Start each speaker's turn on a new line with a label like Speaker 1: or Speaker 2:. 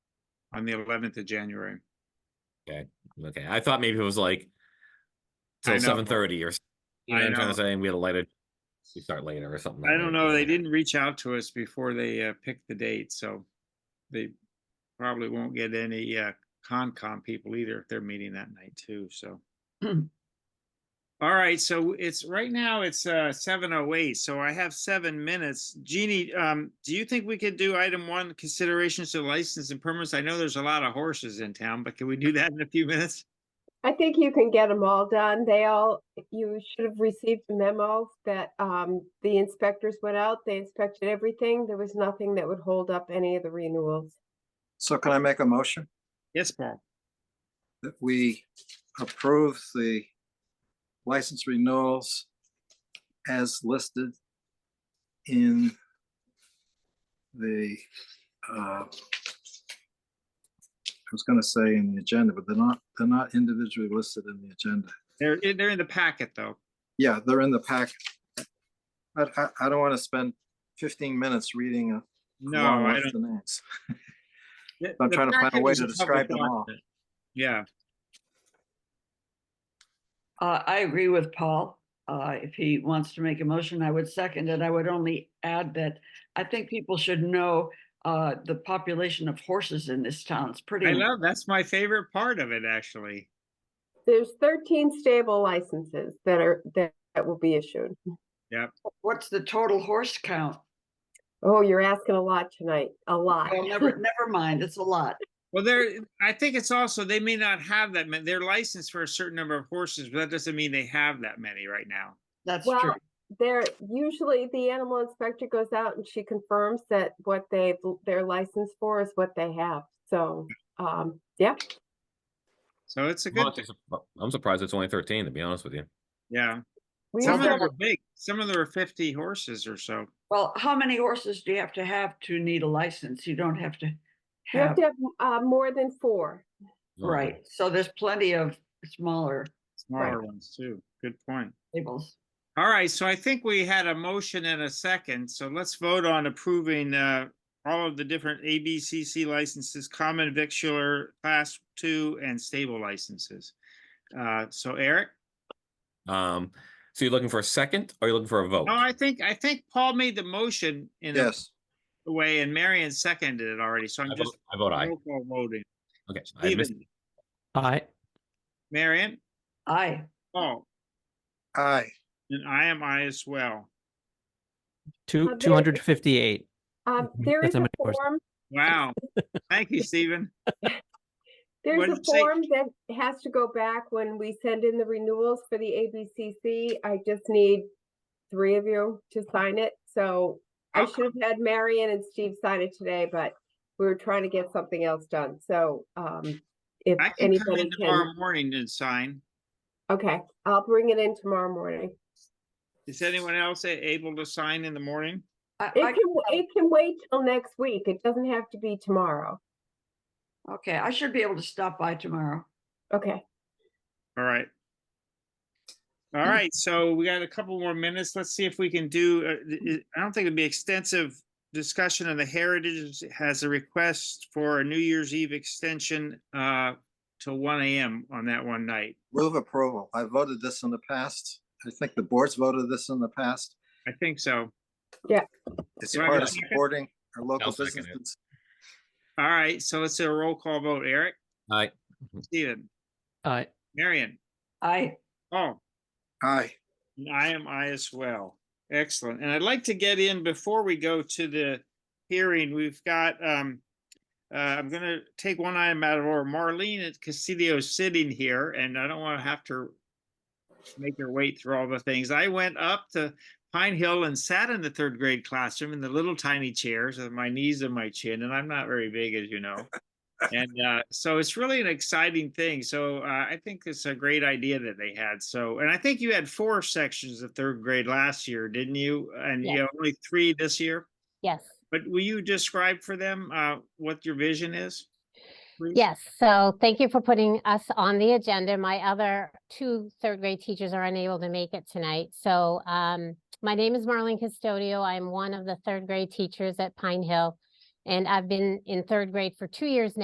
Speaker 1: on the eleventh of January.
Speaker 2: Okay, I thought maybe it was like
Speaker 1: I
Speaker 2: till
Speaker 1: know.
Speaker 2: seven thirty or. s- You know
Speaker 1: I
Speaker 2: what I'm trying
Speaker 1: know.
Speaker 2: to say, and we had a later, we start later or something. like
Speaker 1: I don't
Speaker 2: that,
Speaker 1: know,
Speaker 2: yeah.
Speaker 1: they didn't reach out to us before they uh, picked the date, so they probably won't get any uh, Concom people either if they're meeting that night too, so. All right, so it's, right now it's uh, seven oh eight, so I have seven minutes. Jeannie, um, do you think we could do item one, considerations to license and permits? I know there's a lot of horses in town, but can we do that in a few minutes?
Speaker 3: I think you can get them all done. They all, you should have received memos that um, the inspectors went out, they inspected everything. There was nothing that would hold up any of the renewals.
Speaker 4: So can I make a motion
Speaker 1: Yes, Paul.
Speaker 4: that we approve the license renewals as listed in the, uh, I was gonna say in the agenda, but they're not, they're not individually listed in the agenda.
Speaker 1: They're, they're in the packet, though.
Speaker 4: Yeah, they're in the pack. I, I, I don't want to spend fifteen minutes reading a
Speaker 1: No,
Speaker 4: long
Speaker 1: I
Speaker 4: list
Speaker 1: don't.
Speaker 4: of names.
Speaker 1: The-
Speaker 4: I'm
Speaker 1: the
Speaker 4: trying to find a
Speaker 1: packet
Speaker 4: way
Speaker 1: is
Speaker 4: to
Speaker 1: public
Speaker 4: describe them all.
Speaker 1: document. Yeah,
Speaker 5: Uh, I agree with Paul. Uh, if he wants to make a motion, I would second it. I would only add that I think people should know uh, the population of horses in this town. It's pretty.
Speaker 1: I love, that's my favorite part of it, actually.
Speaker 3: There's thirteen stable licenses that are, that that will be issued.
Speaker 5: What's the total horse count?
Speaker 3: Oh, you're asking a lot tonight, a lot.
Speaker 5: Well, never, never mind. It's a lot.
Speaker 1: Well, there, I think it's also, they may not have that many, they're licensed for a certain number of horses, but that doesn't mean they have that many right now.
Speaker 5: That's
Speaker 3: Well,
Speaker 5: true.
Speaker 3: There, usually the animal inspector goes out and she confirms that what they've, their license for is what they have. So, um, yeah,
Speaker 1: So it's a
Speaker 2: I'm
Speaker 1: good,
Speaker 2: honestly sup- I'm surprised it's only thirteen, to be honest with you.
Speaker 1: yeah.
Speaker 3: we
Speaker 1: Some
Speaker 3: used
Speaker 1: of
Speaker 3: to
Speaker 1: them
Speaker 3: have
Speaker 1: are big, some of them are fifty horses or so.
Speaker 5: Well, how many horses do you have to have to need a license? You don't have to
Speaker 3: You have
Speaker 5: have,
Speaker 3: to have uh, more than four.
Speaker 5: right. So there's plenty of smaller
Speaker 1: Smaller ones too. Good point.
Speaker 5: tables.
Speaker 1: All right, so I think we had a motion and a second, so let's vote on approving uh all of the different ABCC licenses, common victular, class two and stable licenses. Uh, so Eric?
Speaker 2: Um, so you're looking for a second, or you're looking for a vote?
Speaker 1: No, I think, I think Paul made the motion in a
Speaker 4: Yes,
Speaker 1: way and Marion seconded it already, so
Speaker 2: I
Speaker 1: I'm just
Speaker 2: vote- I vote aye.
Speaker 1: roll call voting.
Speaker 2: Okay. I missed-
Speaker 1: Stephen,
Speaker 6: Aye.
Speaker 1: Marion,
Speaker 5: Aye.
Speaker 1: Paul,
Speaker 4: aye.
Speaker 1: and I am I as well.
Speaker 3: Uh,
Speaker 6: Two,
Speaker 3: there-
Speaker 6: two hundred fifty-eight.
Speaker 3: Um,
Speaker 6: Mhm.
Speaker 3: there
Speaker 6: That's
Speaker 3: is
Speaker 6: how
Speaker 3: a
Speaker 6: many horses.
Speaker 3: form,
Speaker 1: Wow. Thank you, Stephen. What
Speaker 3: there's
Speaker 1: did
Speaker 3: a
Speaker 1: it say?
Speaker 3: form that has to go back when we send in the renewals for the ABCC. I just need three of you to sign it. So I
Speaker 1: Okay.
Speaker 3: should have had Marion and Steve sign it today, but we were trying to get something else done. So, um, if
Speaker 1: I can come
Speaker 3: anybody
Speaker 1: in
Speaker 3: can,
Speaker 1: tomorrow morning and sign.
Speaker 3: okay, I'll bring it in tomorrow morning.
Speaker 1: Is anyone else a- able to sign in the morning?
Speaker 5: I,
Speaker 3: It
Speaker 5: I-
Speaker 3: can, it can wait till next week. It doesn't have to be tomorrow.
Speaker 5: okay. I should be able to stop by tomorrow.
Speaker 3: Okay.
Speaker 1: All right. All right, so we got a couple more minutes. Let's see if we can do, uh, th- th- I don't think it'd be extensive discussion of the Heritage has a request for a New Year's Eve extension uh till one AM on that one night.
Speaker 4: Move approval. I voted this in the past. I think the board's voted this in the past.
Speaker 1: I think so.
Speaker 4: It's
Speaker 1: Do I have a
Speaker 4: part of
Speaker 1: second?
Speaker 4: supporting our local
Speaker 2: I'll second it.
Speaker 4: businesses.
Speaker 1: All right, so let's do a roll call vote. Eric,
Speaker 2: Aye.
Speaker 1: Stephen,
Speaker 6: Aye.
Speaker 1: Marion,
Speaker 5: Aye.
Speaker 1: Paul.
Speaker 4: Aye.
Speaker 1: And I am I as well. Excellent. And I'd like to get in before we go to the hearing. We've got, um, uh, I'm going to take one item out of order. Marlene at Castillo is sitting here and I don't want to have to make her wait through all the things. I went up to Pine Hill and sat in the third grade classroom in the little tiny chairs with my knees and my chin. And I'm not very big, as you know. And uh, so it's really an exciting thing. So uh, I think it's a great idea that they had. So, and I think you had four sections of third grade last year, didn't you? And you
Speaker 7: Yes.
Speaker 1: have only three this year.
Speaker 7: Yes.
Speaker 1: But will you describe for them uh, what your vision is? please?
Speaker 7: Yes. So thank you for putting us on the agenda. My other two third grade teachers are unable to make it tonight. So um, my name is Marlene Custodio. I'm one of the third grade teachers at Pine Hill. And I've been in third grade for two years now.